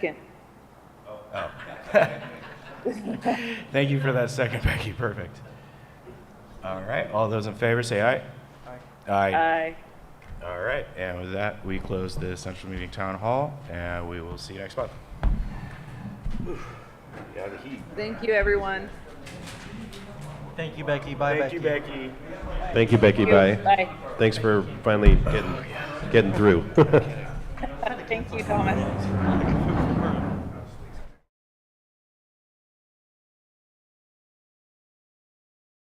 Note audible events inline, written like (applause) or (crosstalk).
Second. Thank you for that second, (laughs) Becky. Perfect. All right. All those in favor, say aye. Aye. Aye. All right. And with that, we close the central meeting town hall, and we will see you next month. Thank you, everyone. Thank you, Becky. Bye, Becky. Becky. Thank you, Becky. Bye. Bye. Thanks for finally getting, getting through. (laughs) Thank you, Thomas.